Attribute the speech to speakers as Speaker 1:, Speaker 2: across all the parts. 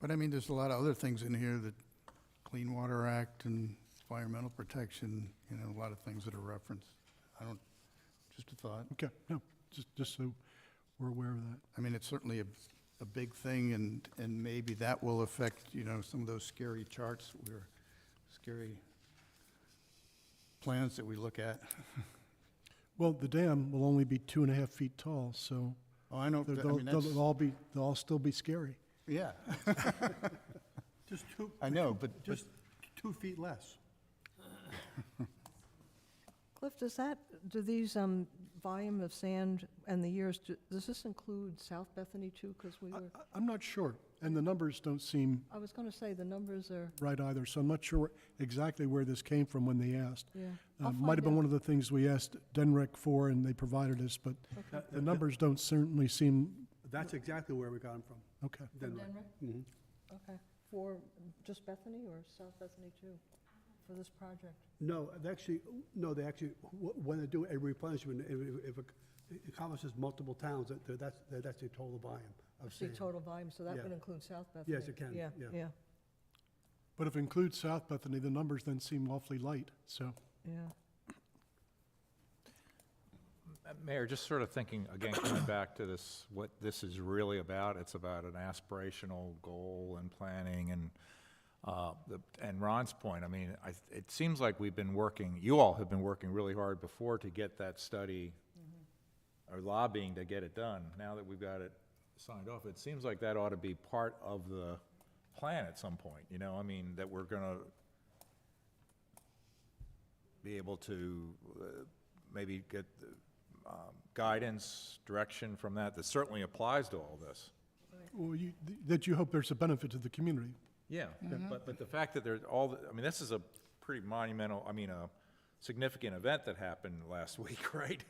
Speaker 1: But I mean, there's a lot of other things in here that Clean Water Act and environmental protection, you know, a lot of things that are referenced. I don't, just a thought.
Speaker 2: Okay, no, just, just so we're aware of that.
Speaker 1: I mean, it's certainly a, a big thing and, and maybe that will affect, you know, some of those scary charts or scary plans that we look at.
Speaker 2: Well, the dam will only be two and a half feet tall, so
Speaker 1: Oh, I know,
Speaker 2: they'll,
Speaker 1: I mean,
Speaker 2: they'll-
Speaker 1: that's,
Speaker 2: they'll all be, they'll all still be scary.
Speaker 1: yeah,
Speaker 3: Just two,
Speaker 1: I know, but, but
Speaker 3: just two feet less.
Speaker 4: Cliff, does that, do these, um, volume of sand and the years, do- does this include South Bethany too? Because we
Speaker 3: Uh,
Speaker 2: I,
Speaker 4: were,
Speaker 2: I- I'm not sure, and the numbers don't seem
Speaker 4: I was going to say the numbers are,
Speaker 2: right either, so I'm not sure exactly where this came from when they asked.
Speaker 4: yeah.
Speaker 2: Uh,
Speaker 4: I'll
Speaker 2: Might have
Speaker 4: find
Speaker 2: been one of the things we asked Denrec for, and they provided us, but
Speaker 4: Okay.
Speaker 2: the numbers don't certainly seem,
Speaker 3: That's exactly where we got them from,
Speaker 2: okay.
Speaker 4: From
Speaker 3: Denver.
Speaker 4: Denver?
Speaker 3: Mhm.
Speaker 4: Okay. For just Bethany or South Bethany too, for this project?
Speaker 3: No, they actually, no, they actually, wh- when they do a replenishment, if, if it encompasses multiple towns, that- that- that's, that- that's the total volume of
Speaker 4: See
Speaker 3: sand.
Speaker 4: total volume, so that
Speaker 3: Yeah.
Speaker 4: would include South Bethany?
Speaker 3: Yes, it can, yeah.
Speaker 4: Yeah,
Speaker 2: But if it includes South Bethany, the numbers then seem awfully light, so.
Speaker 4: yeah.
Speaker 5: Uh, Mayor, just sort of thinking, again, coming back to this, what this is really about, it's about an aspirational goal and planning and, uh, the- and Ron's point, I mean, I, it seems like we've been working, you all have been working really hard before to get that study or lobbying to get it done. Now that we've got it signed off, it seems like that ought to be part of the plan at some point, you know? I mean, that we're gonna be able to uh, maybe get uh, um, guidance, direction from that, that certainly applies to all this.
Speaker 2: Well, you, th- that you hope there's a benefit to the community.
Speaker 5: Yeah,
Speaker 4: Mm-hmm.
Speaker 5: but, but the fact that there's all, the- I mean, this is a pretty monumental, I mean, a significant event that happened last week, right?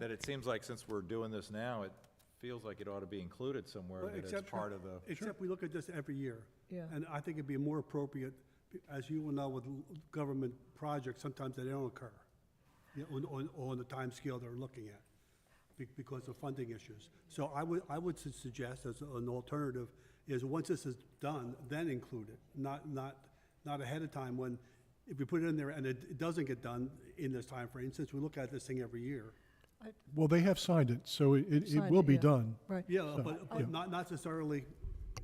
Speaker 5: That it seems like since we're doing this now, it feels like it ought to be included somewhere,
Speaker 3: Well,
Speaker 5: that it's
Speaker 3: except-
Speaker 5: part of the,
Speaker 3: Except we look at this every year.
Speaker 4: Yeah.
Speaker 3: And I think it'd be more appropriate, be- as you will know with l- government projects, sometimes they don't occur you know, on, on, on the timescale they're looking at be- because of funding issues. So I would, I would su- suggest as an alternative is once this is done, then include it, not, not, not ahead of time when, if we put it in there and it, it doesn't get done in this time frame, since we look at this thing every year.
Speaker 2: Well, they have signed it, so it, it- it
Speaker 4: Signed
Speaker 2: will
Speaker 4: it,
Speaker 2: be
Speaker 4: yeah.
Speaker 2: done.
Speaker 4: Right.
Speaker 3: Yeah,
Speaker 2: So,
Speaker 3: but,
Speaker 2: yeah.
Speaker 3: but not, not necessarily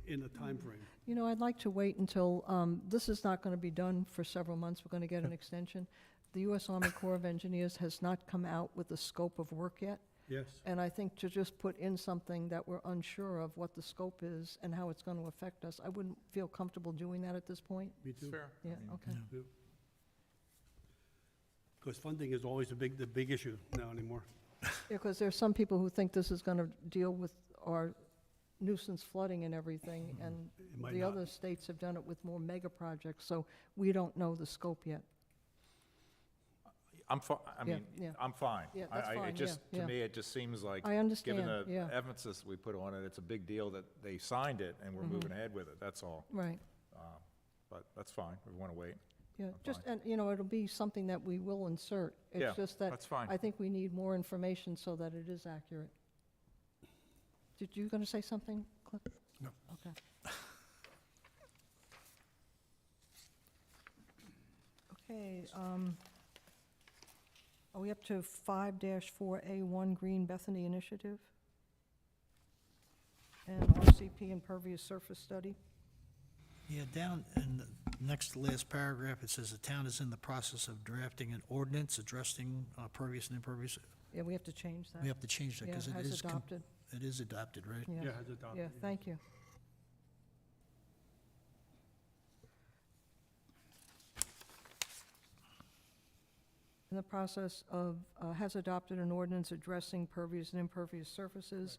Speaker 3: in the time frame.
Speaker 4: You know, I'd like to wait until, um, this is not going to be done for several months. We're going to get an extension. The U.S. Army Corps of Engineers has not come out with the scope of work yet.
Speaker 3: Yes.
Speaker 4: And I think to just put in something that we're unsure of what the scope is and how it's going to affect us, I wouldn't feel comfortable doing that at this point.
Speaker 3: Me too.
Speaker 5: fair.
Speaker 4: Yeah, okay.
Speaker 3: Because funding is always the big, the big issue now anymore.
Speaker 4: Because there's some people who think this is going to deal with our nuisance flooding and everything, and
Speaker 3: Mm-hmm. It might
Speaker 4: the
Speaker 3: not.
Speaker 4: other states have done it with more mega projects, so we don't know the scope yet.
Speaker 5: I'm fi, I
Speaker 4: Yeah,
Speaker 5: mean,
Speaker 4: yeah.
Speaker 5: I'm fine.
Speaker 4: Yeah,
Speaker 5: I-
Speaker 4: that's
Speaker 5: I- it
Speaker 4: fine, yeah,
Speaker 5: just-
Speaker 4: yeah.
Speaker 5: To me, it just seems like.
Speaker 4: I understand,
Speaker 5: Given
Speaker 4: yeah.
Speaker 5: the emphasis we put on it, it's a big deal that they signed it and we're
Speaker 4: Mm-hmm.
Speaker 5: moving ahead with it, that's all.
Speaker 4: Right,
Speaker 5: But that's fine, we want to wait.
Speaker 4: yeah, just, and, you know, it'll be something that we will insert.
Speaker 5: Yeah,
Speaker 4: It's just that.
Speaker 5: that's fine.
Speaker 4: I think we need more information so that it is accurate. Did you going to say something, Cliff?
Speaker 2: No.
Speaker 4: Okay. Okay, um, are we up to five four A one Green Bethany Initiative? And RCP impervious surface study?
Speaker 6: Yeah, down in the next to last paragraph, it says the town is in the process of drafting an ordinance addressing uh, pervious and impervious.
Speaker 4: Yeah, we have to change that.
Speaker 6: We have to change that because
Speaker 4: Yeah,
Speaker 6: it
Speaker 4: as
Speaker 6: is. com-
Speaker 4: adopted, Mm.
Speaker 6: It is adopted, right?
Speaker 4: yeah.
Speaker 3: Yeah, has adopted.
Speaker 4: Yeah, thank you. In the process of, uh, has adopted an ordinance addressing pervious and impervious surfaces,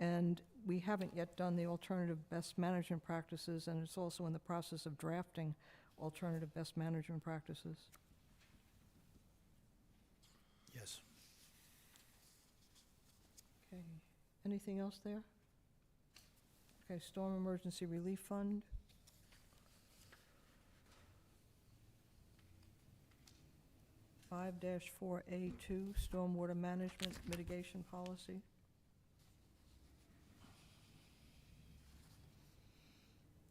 Speaker 4: and we haven't yet done the alternative best management practices, and it's also in the process of drafting alternative best management practices.
Speaker 6: Yes.
Speaker 4: Okay, anything else there? Okay, Storm Emergency Relief Fund, five four A two, Stormwater Management Mitigation Policy.